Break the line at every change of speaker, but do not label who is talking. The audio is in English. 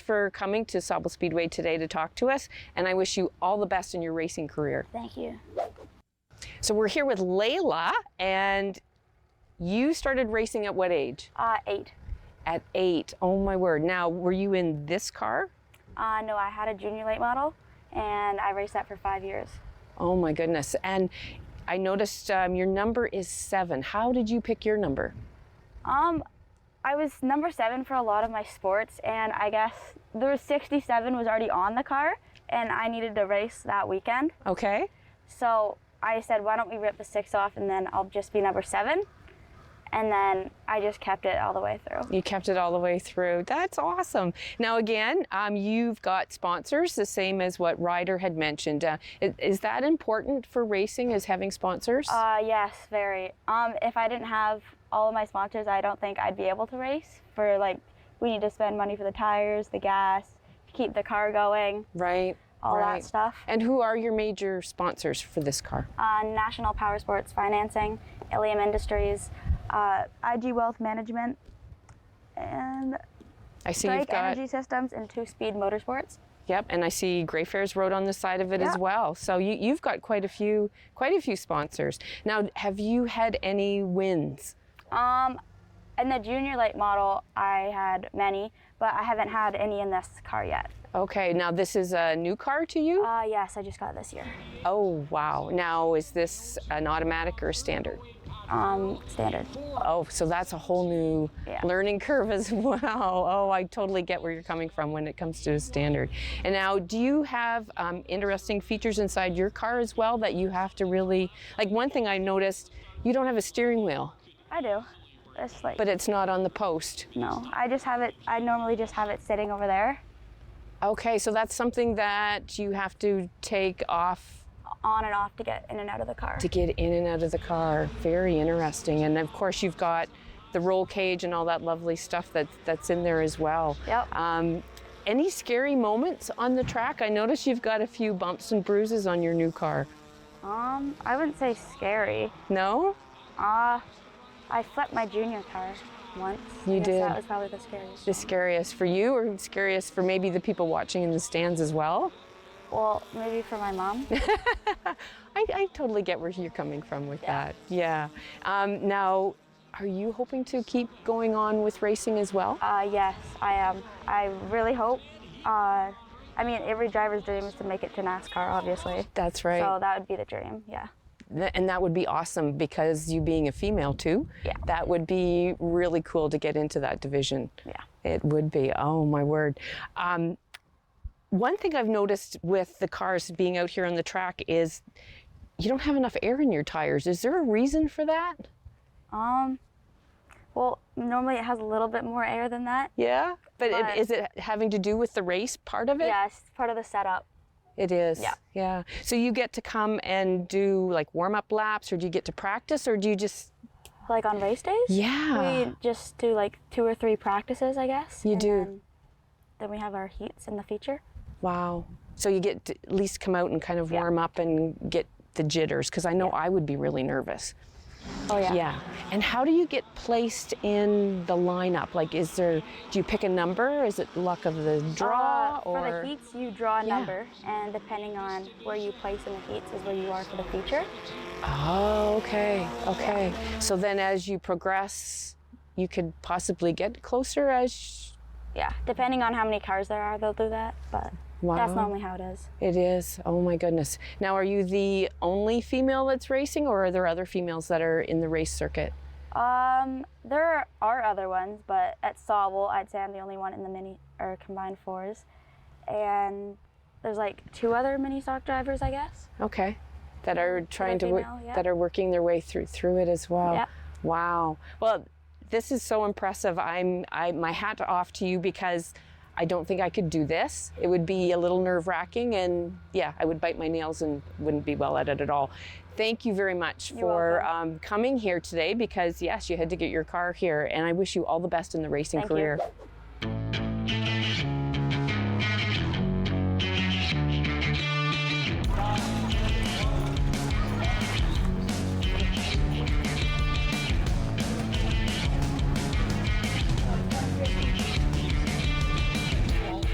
for coming to Sobel Speedway today to talk to us, and I wish you all the best in your racing career.
Thank you.
So we're here with Layla, and you started racing at what age?
Uh, eight.
At eight. Oh my word. Now, were you in this car?
Uh, no, I had a junior late model, and I raced that for five years.
Oh my goodness. And I noticed um, your number is seven. How did you pick your number?
Um, I was number seven for a lot of my sports, and I guess there was 67 was already on the car, and I needed to race that weekend.
Okay.
So I said, why don't we rip the six off, and then I'll just be number seven. And then I just kept it all the way through.
You kept it all the way through. That's awesome. Now, again, um, you've got sponsors, the same as what Ryder had mentioned. Uh, i- is that important for racing, is having sponsors?
Uh, yes, very. Um, if I didn't have all of my sponsors, I don't think I'd be able to race. For like, we need to spend money for the tires, the gas, to keep the car going,
right.
all
right.
that stuff.
And who are your major sponsors for this car?
Uh, National Power Sports Financing, Ilium Industries, uh, IG Wealth Management, and
I see you've
Drake
got.
Energy Systems, and Two Speed Motorsports.
Yep, and I see Greyfair's Road on the side of it as
Yeah.
well. So you, you've got quite a few, quite a few sponsors. Now, have you had any wins?
Um, in the junior late model, I had many, but I haven't had any in this car yet.
Okay, now this is a new car to you.
Uh, yes, I just got it this year.
oh wow! Now is this an automatic or a standard?
Um, standard.
Oh, so that's a whole new
Yeah.
learning curve as well. Oh, I totally get where you're coming from when it comes to a standard. And now, do you have um, interesting features inside your car as well that you have to really like? One thing I noticed, you don't have a steering wheel,
I do. It's like
but it's not on the post.
no. I just have it. I normally just have it sitting over there
Okay, so that's something that you have to take off
on and off to get in and out of the car.
to get in and out of the car. Very interesting. And of course, you've got the roll cage and all that lovely stuff that that's in there as well.
Yep.
Um, any scary moments on the track? I notice you've got a few bumps and bruises on your new car.
Um, I wouldn't say scary.
No?
Uh, I flipped my junior car once.
You
I guess
did.
That was probably the scariest.
The scariest for you or scariest for maybe the people watching in the stands as well?
Well, maybe for my mom.
I, I totally get where you're coming from with that. Yeah. Um, now, are you hoping to keep going on with racing as well?
uh, yes, I am. I really hope. Uh, I mean, every driver's dream is to make it to NASCAR, obviously.
That's right.
So that would be the dream. Yeah.
Th- and that would be awesome because you being a female too,
Yeah.
that would be really cool to get into that division.
Yeah.
It would be. Oh my word. Um, one thing I've noticed with the cars being out here on the track is you don't have enough air in your tires. Is there a reason for that?
Um. Well, normally it has a little bit more air than that.
Yeah. But, it-
But-
is it having to do with the race part of it?
Yes, part of the setup.
It is.
Yeah.
Yeah. So you get to come and do like warm up laps or do you get to practice or do you just
Like on race days,
Yeah.
we just do like two or three practices, I guess.
You
and
do.
Then, then we have our heats in the feature.
Wow. So you get to at least come out and kind of warm up and get the jitters because I know I would be really nervous.
Oh yeah.
Yeah. And how do you get placed in the lineup? Like, is there, do you pick a number? Is it luck of the draw?
Uh,
or
For the heats, you draw a
Yeah.
number, and depending on where you place in the heats is where you are for the feature.
Oh, okay. Okay. So then as you progress, you could possibly get closer as.
Yeah, depending on how many cars there are, they'll do that, but
Wow.
that's normally how it is.
It is. Oh my goodness. Now, are you the only female that's racing, or are there other females that are in the race circuit?
Um, there are other ones, but at Sobel, I'd say I'm the only one in the mini or combined fours, and there's like two other mini stock drivers, I guess.
Okay. That are trying to
female,
work,
yeah.
that are working their way through through it as well.
Yeah.
Wow. Well, this is so impressive. I'm I my hat off to you because I don't think I could do this. It would be a little nerve wracking and yeah, I would bite my nails and wouldn't be well at it at all. Thank you very much for um, coming here today because yes, you had to get your car here and I wish you all the best in the racing
Thank you.
career.